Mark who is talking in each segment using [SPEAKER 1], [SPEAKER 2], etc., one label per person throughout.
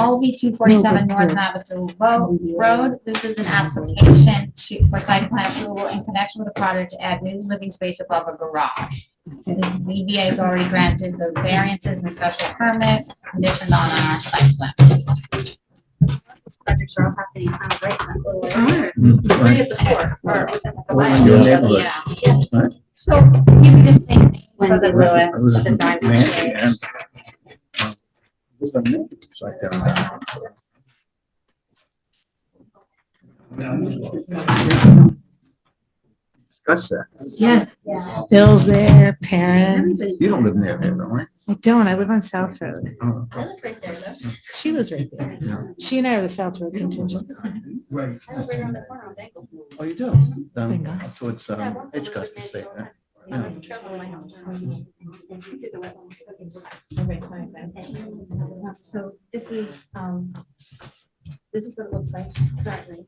[SPEAKER 1] OB two forty-seven North Navajo Road. Road. This is an application to, for site plan approval in connection with a project to add new living space above a garage. So the ZBA has already granted the variances and special permit conditioned on our site plan.
[SPEAKER 2] Those projects are all happening kind of right in that little area. Three
[SPEAKER 3] Right.
[SPEAKER 2] of the four are right at the
[SPEAKER 3] Or in
[SPEAKER 2] line.
[SPEAKER 3] your neighborhood.
[SPEAKER 2] Yeah.
[SPEAKER 1] So you could just think
[SPEAKER 2] For the
[SPEAKER 3] Was it- was
[SPEAKER 2] Lewis
[SPEAKER 3] it
[SPEAKER 2] design.
[SPEAKER 3] man-
[SPEAKER 2] change.
[SPEAKER 3] and- uh, this one, yeah, it's like that. Discuss that.
[SPEAKER 4] Yes,
[SPEAKER 2] Yeah.
[SPEAKER 4] Bill's there, Perrin.
[SPEAKER 2] Everybody's-
[SPEAKER 3] You don't live near here, don't you?
[SPEAKER 4] I don't, I live on South Road.
[SPEAKER 3] Oh,
[SPEAKER 2] I live right there, though.
[SPEAKER 4] She lives right there.
[SPEAKER 3] yeah.
[SPEAKER 4] She and I are the South Road contingent.
[SPEAKER 2] I live right around the corner on Dangle.
[SPEAKER 3] Oh, you do? Down
[SPEAKER 4] Bingo.
[SPEAKER 3] towards
[SPEAKER 2] Yeah, I
[SPEAKER 3] um,
[SPEAKER 2] walked over to
[SPEAKER 3] Edgecote
[SPEAKER 2] Mansfield
[SPEAKER 3] Estate.
[SPEAKER 2] all the
[SPEAKER 3] huh?
[SPEAKER 2] time. You know, I can travel my house. Did the wetlands. So this is, um, this is what it looks like currently.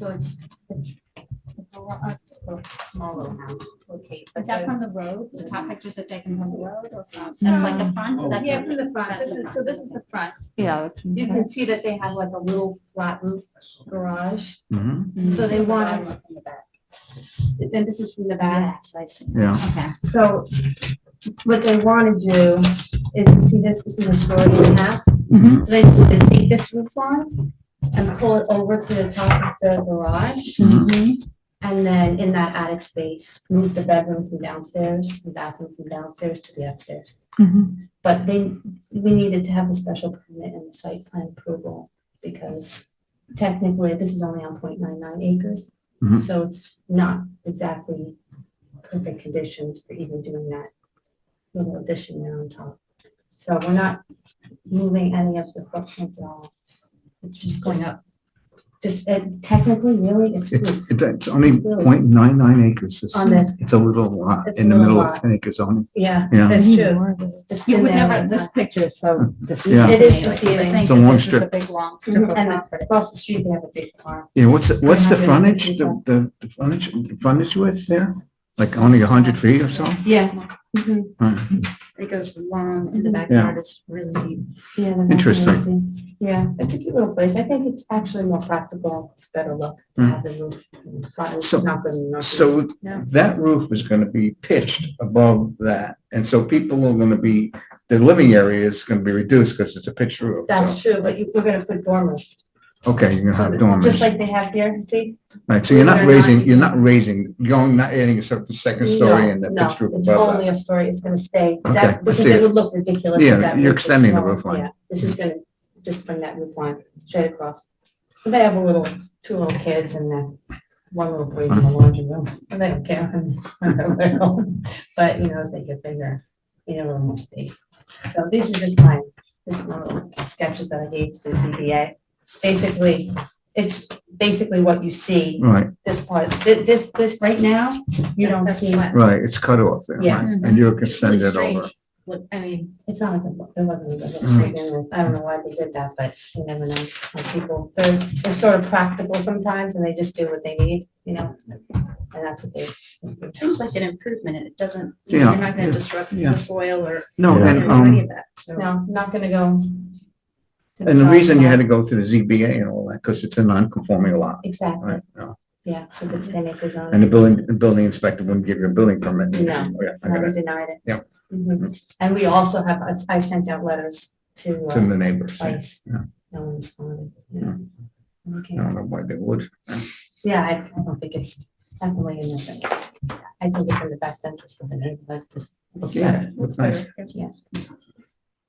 [SPEAKER 2] So it's, it's a lot, uh, just a small little house, okay. but
[SPEAKER 1] Is that
[SPEAKER 2] the-
[SPEAKER 1] from the road? The top pictures are taken from the road or from? That's like the front? That's
[SPEAKER 2] Yeah,
[SPEAKER 1] the-
[SPEAKER 2] from the front. This is, so this is the front.
[SPEAKER 4] Yeah.
[SPEAKER 2] You can see that they have like a little flat roof garage.
[SPEAKER 3] Mhm,
[SPEAKER 2] Mm-hmm. So they want to. Then this is from the back.
[SPEAKER 3] Yeah.
[SPEAKER 1] Okay.
[SPEAKER 2] So what they want to do is, you see this, this is a story and a half.
[SPEAKER 3] Mhm.
[SPEAKER 2] They want to take this roof line and pull it over to the top of the garage.
[SPEAKER 3] mm-hmm.
[SPEAKER 2] And then in that attic space, move the bedroom from downstairs, the bathroom from downstairs to the upstairs. Mm-hmm.
[SPEAKER 4] Mhm.
[SPEAKER 2] But they, we needed to have a special permit and site plan approval because technically this is only on 0.99 acres.
[SPEAKER 3] Mhm.
[SPEAKER 2] So it's not exactly perfect conditions for even doing that little addition there on top. So we're not moving any of the footprint at all. It's just going up. Just uh, technically, really, it's
[SPEAKER 3] It's,
[SPEAKER 2] roof
[SPEAKER 3] it- it's only
[SPEAKER 2] It's really-
[SPEAKER 3] 0.99 acres. It's-
[SPEAKER 2] on this.
[SPEAKER 3] It's a little lot
[SPEAKER 2] It's
[SPEAKER 3] in
[SPEAKER 2] a
[SPEAKER 3] the
[SPEAKER 2] little
[SPEAKER 3] middle of
[SPEAKER 2] lot.
[SPEAKER 3] ten acre zone.
[SPEAKER 2] Yeah,
[SPEAKER 3] Yeah.
[SPEAKER 2] that's
[SPEAKER 4] Need
[SPEAKER 2] true.
[SPEAKER 4] more of those.
[SPEAKER 2] It's
[SPEAKER 1] You
[SPEAKER 2] been
[SPEAKER 1] would
[SPEAKER 2] there a
[SPEAKER 1] never,
[SPEAKER 2] long
[SPEAKER 1] this
[SPEAKER 2] time.
[SPEAKER 1] picture is so
[SPEAKER 3] Yeah.
[SPEAKER 1] deceiving
[SPEAKER 2] It
[SPEAKER 1] to
[SPEAKER 2] is
[SPEAKER 1] me, like,
[SPEAKER 2] deceiving.
[SPEAKER 1] to think
[SPEAKER 3] It's a
[SPEAKER 1] that
[SPEAKER 3] long
[SPEAKER 1] this is a
[SPEAKER 3] strip.
[SPEAKER 1] big, long strip.
[SPEAKER 2] Mhm.
[SPEAKER 1] of
[SPEAKER 2] And
[SPEAKER 1] property.
[SPEAKER 2] across the street, they have a big farm.
[SPEAKER 3] Yeah, what's, the- what's the
[SPEAKER 2] 300
[SPEAKER 3] frontage, the,
[SPEAKER 2] people.
[SPEAKER 3] the the frontage, the frontage width there? Like only a hundred feet or so?
[SPEAKER 2] Yeah. Mm-hmm.
[SPEAKER 3] Right.
[SPEAKER 2] It goes long
[SPEAKER 1] in the
[SPEAKER 3] backyard,
[SPEAKER 2] it's really deep. Yeah. the
[SPEAKER 3] Interesting.
[SPEAKER 2] backyard is deep. Yeah, it's a cute little place. I think it's actually more practical. It's better look to
[SPEAKER 3] Mm.
[SPEAKER 2] have the roof. and the front roof
[SPEAKER 3] So-
[SPEAKER 2] is not good enough.
[SPEAKER 3] So
[SPEAKER 2] Yeah.
[SPEAKER 3] that roof is gonna be pitched above that, and so people are gonna be, the living area is gonna be reduced because it's a pitched roof. so-
[SPEAKER 2] That's true, but you, we're gonna put dormers.
[SPEAKER 3] Okay, you're gonna
[SPEAKER 2] So
[SPEAKER 3] have
[SPEAKER 2] that-
[SPEAKER 3] dormers,
[SPEAKER 2] Just like they have here, see?
[SPEAKER 3] right, so you're
[SPEAKER 2] They're
[SPEAKER 3] not
[SPEAKER 2] not-
[SPEAKER 3] raising, you're not raising, you're only not adding a certain second story
[SPEAKER 2] No,
[SPEAKER 3] and the
[SPEAKER 2] no,
[SPEAKER 3] pitched roof
[SPEAKER 2] It's
[SPEAKER 3] above
[SPEAKER 2] only
[SPEAKER 3] that.
[SPEAKER 2] a story. It's gonna stay.
[SPEAKER 3] Okay, I
[SPEAKER 2] That, because
[SPEAKER 3] see it.
[SPEAKER 2] it would look ridiculous. if
[SPEAKER 3] Yeah,
[SPEAKER 2] that
[SPEAKER 3] you're
[SPEAKER 2] roof was
[SPEAKER 3] extending the
[SPEAKER 2] small.
[SPEAKER 3] roof line.
[SPEAKER 2] Yeah, This is gonna just bring that roof line straight across. And They have a little, two little kids and then one little boy in
[SPEAKER 3] Uh-huh.
[SPEAKER 2] the laundry room, and they don't care. when they're little. But, you know, as they get bigger, you know, a little more space. So these are just my, just my little sketches that I gave to the ZBA. Basically, it's basically what you see,
[SPEAKER 3] Right,
[SPEAKER 2] this part, thi- this, this right now, you don't see.
[SPEAKER 3] right, it's cut off there,
[SPEAKER 2] Yeah.
[SPEAKER 3] right, and you're gonna send it over.
[SPEAKER 2] I mean. It's not a good look, there wasn't a good look.
[SPEAKER 3] Mm.
[SPEAKER 2] to begin with. I don't know why they did that, but you never know, Those people, they're, they're sort of practical sometimes and they just do what they need, you know? And that's what they.
[SPEAKER 5] It seems
[SPEAKER 2] Mm-hmm.
[SPEAKER 5] like an improvement and it doesn't,
[SPEAKER 3] you know,
[SPEAKER 5] you're
[SPEAKER 3] you're
[SPEAKER 5] not
[SPEAKER 3] gonna
[SPEAKER 5] gonna disrupt
[SPEAKER 3] yeah.
[SPEAKER 5] the soil or
[SPEAKER 3] No,
[SPEAKER 6] Yeah.
[SPEAKER 3] and,
[SPEAKER 5] any
[SPEAKER 3] um,
[SPEAKER 5] of that, so.
[SPEAKER 2] No, not gonna go. to
[SPEAKER 3] and the
[SPEAKER 2] side
[SPEAKER 3] reason you
[SPEAKER 2] yet.
[SPEAKER 3] had to go to the ZBA and all that, because it's a non-conforming lot,
[SPEAKER 2] Exactly,
[SPEAKER 3] right? no.
[SPEAKER 2] yeah, because it's ten acres on.
[SPEAKER 3] And the building, the building inspector wouldn't give you a building permit.
[SPEAKER 2] No.
[SPEAKER 3] Yeah, I
[SPEAKER 2] Never
[SPEAKER 3] got it.
[SPEAKER 2] denied it.
[SPEAKER 3] Yep.
[SPEAKER 2] Mhm. And we also have, I- I sent out letters to,
[SPEAKER 3] To
[SPEAKER 2] uh,
[SPEAKER 3] the neighbors. I
[SPEAKER 2] twice.
[SPEAKER 3] Yeah.
[SPEAKER 2] No one responded.
[SPEAKER 3] Yeah.
[SPEAKER 2] yeah. Okay.
[SPEAKER 3] don't know why they would.
[SPEAKER 2] Yeah, I I don't think it's definitely in the, I think it's in the best interest of the neighborhood, just. look better.
[SPEAKER 3] It's nice.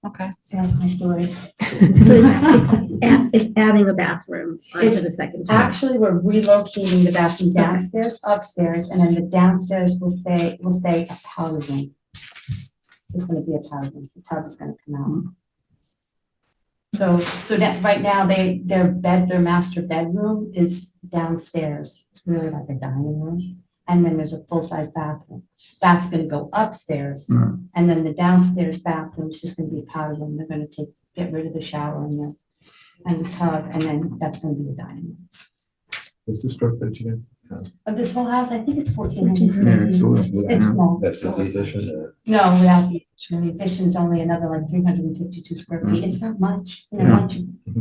[SPEAKER 1] Okay.
[SPEAKER 2] So That's my story.
[SPEAKER 7] So it's- it's add- It's adding a bathroom onto
[SPEAKER 2] It's
[SPEAKER 7] the second floor.
[SPEAKER 2] Actually, we're relocating the bathroom downstairs, upstairs, and then the downstairs will say, will say a powder room. It's gonna be a powder room, the tub is gonna come out. So, so that, right now, they, their bed, their master bedroom is downstairs, it's really like a dining room. And then there's a full-size bathroom, that's gonna go upstairs,
[SPEAKER 3] Hmm.
[SPEAKER 2] and then the downstairs bathroom is just gonna be a powder room, they're gonna take, get rid of the shower and the, and the tub, and then that's gonna be the dining room.
[SPEAKER 6] What's the square footage again?
[SPEAKER 2] Of this whole house, I think it's fourteen
[SPEAKER 3] Yeah,
[SPEAKER 2] hundred.
[SPEAKER 3] it's a little-
[SPEAKER 2] It's
[SPEAKER 3] yeah.
[SPEAKER 2] small.
[SPEAKER 6] That's with the addition or?
[SPEAKER 2] No, without the addition, the addition's only another like three hundred and fifty-two square feet. It's not much, you know,
[SPEAKER 3] Yeah.
[SPEAKER 2] once you